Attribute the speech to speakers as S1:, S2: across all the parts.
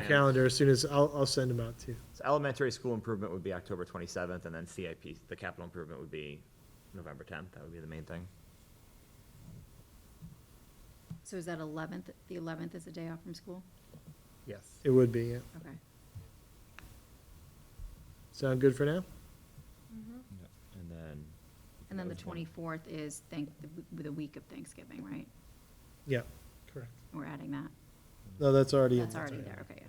S1: your calendar as soon as, I'll, I'll send them out to you.
S2: So elementary school improvement would be October twenty-seventh, and then CIP, the capital improvement would be November tenth, that would be the main thing.
S3: So is that 11th, the 11th is a day off from school?
S2: Yes.
S1: It would be, yeah.
S3: Okay.
S1: Sound good for now?
S2: And then.
S3: And then the
S2: that was one.
S3: 24th is thank, the w- the week of Thanksgiving, right?
S1: Yeah, correct.
S3: We're adding that.
S1: No, that's already. in
S3: That's
S1: there.
S3: already there, okay, yeah.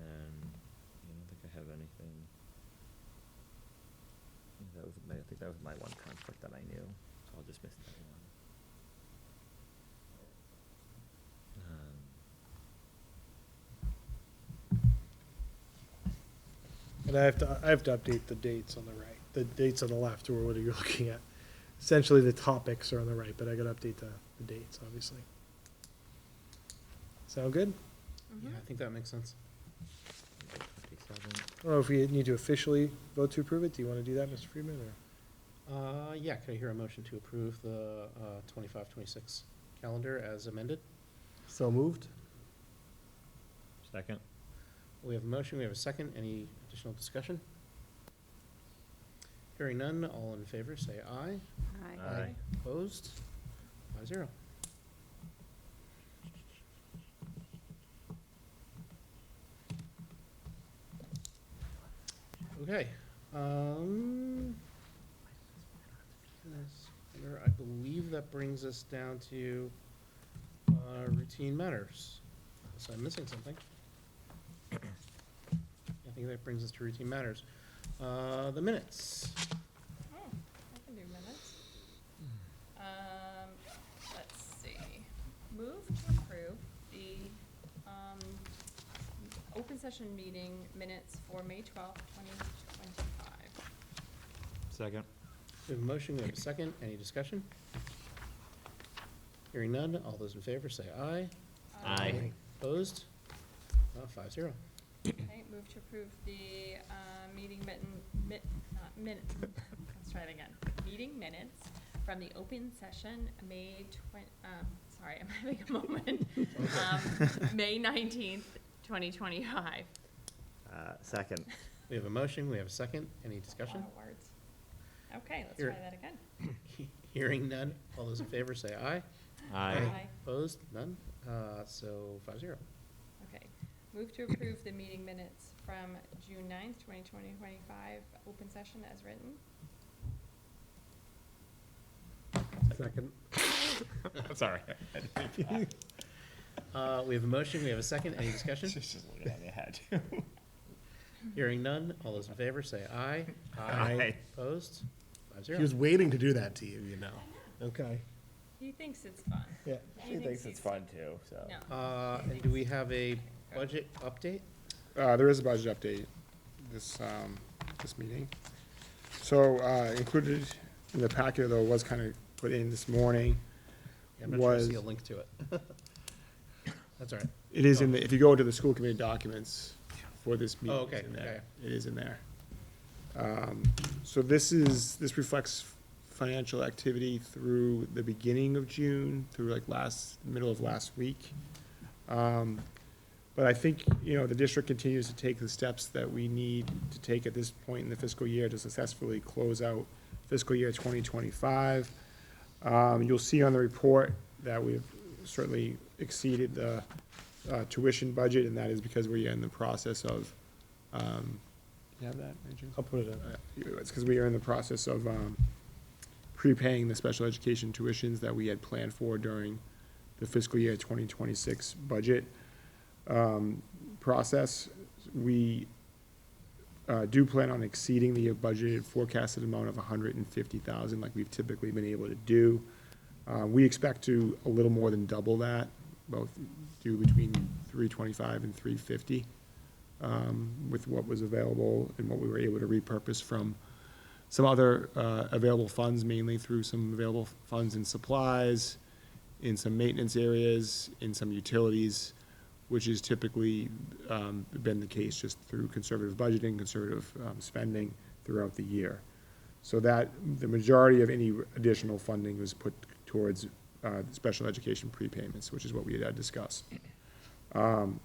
S2: And I don't think I have anything. Yeah, That was, my- I think that was my one conflict that I knew, so I'll just miss that one. Um,
S1: And I have to, I have to update the dates on the right. The dates on the left were what are you looking at? Essentially, the topics are on the right, but I gotta update the, the dates, obviously. Sound good?
S4: Yeah, I think that makes sense.
S2: November 27th.
S1: I don't know if we need to officially vote to approve it. Do you wanna do that, Mr. Friedman, or?
S4: Uh, yeah, could I hear a motion to approve the, uh, twenty-five, twenty-six calendar as um, amended?
S1: So moved.
S2: Second?
S4: We have a motion, we have a second, any additional discussion? Hearing none, all in favor, say aye.
S3: All right.
S2: Aye.
S4: Opposed? Five zero. Okay, um. that's better. I believe that brings us down to, uh, routine matters. So I'm missing something. I think that brings us to routine matters. Uh, the minutes.
S5: Oh, I can do minutes. Um, let's see. Move to approve the, um, open session meeting minutes for May twelfth, twenty twenty-five.
S2: Second.
S4: We have a motion, we have a second, any discussion? Hearing none, all those in favor say aye.
S2: Aye.
S4: Opposed? Uh, five zero.
S5: Okay, move to approve the, uh, meeting mitten, mit, not minute, let's try it again. Meeting minutes from the open session, May twen- um, sorry, I'm having a moment. Um, May nineteenth, twenty twenty-five.
S2: Uh, second.
S4: We have a motion, we have a second, any discussion?
S5: Lot of words. Okay, let's
S4: Here.
S5: try that again.
S4: Hearing none, all those in favor say aye.
S2: Aye.
S4: Opposed? None? Uh, so five zero.
S5: Okay. Move to approve the meeting minutes from June ninth, twenty twenty, twenty-five, open session as written.
S1: Second.
S2: Sorry.
S4: Uh, we have a motion, we have a second, any discussion?
S2: She's just looking at me, I had to.
S4: Hearing none, all those in favor say aye.
S2: Aye.
S4: Opposed? Five
S6: He
S4: zero.
S6: was waiting to do that to you, you know.
S1: Okay,
S5: He thinks it's fun.
S1: yeah.
S5: He thinks it's fun.
S2: too, so.
S5: No.
S4: Uh, and do we have a budget update?
S7: Uh, there is a budget update this, um, this meeting. So, uh, included in the packet, though, was kind of put in this morning,
S4: I'm not sure I
S7: was-
S4: see a link to it. That's all right.
S7: it is in, the if you go into the school committee documents for this meeting.
S4: Oh, okay,
S7: it's in there.
S4: okay.
S7: It is in there. Um, So this is, this reflects financial activity through the beginning of June, through like last, middle of last week. Um, But I think, you know, the district continues to take the steps that we need to take at this point in the fiscal year to successfully close out fiscal year twenty twenty-five. Um, you'll see on the report that we've certainly exceeded the, uh, tuition budget, and that is because we're in the process of, um, you have that, Andrew?
S1: I'll put it in.
S7: Uh, It's because we are in the process of, um, prepaying the special education tuitions that we had planned for during the fiscal year twenty twenty-six budget, um, process. We, uh, do plan on exceeding the budgeted forecasted amount of hundred and fifty thousand like we've typically been able to do. Uh, we expect to a little more than double that, both do between three twenty-five and three fifty, um, with what was available and what we were able to repurpose from some other, uh, available funds, mainly through some available funds and supplies, in some maintenance areas, in some utilities, which has typically um, been the case just through conservative budgeting, conservative um, spending throughout the year. So that, the majority of any additional funding was put towards uh, special education prepayments, which is what we had discussed. Um,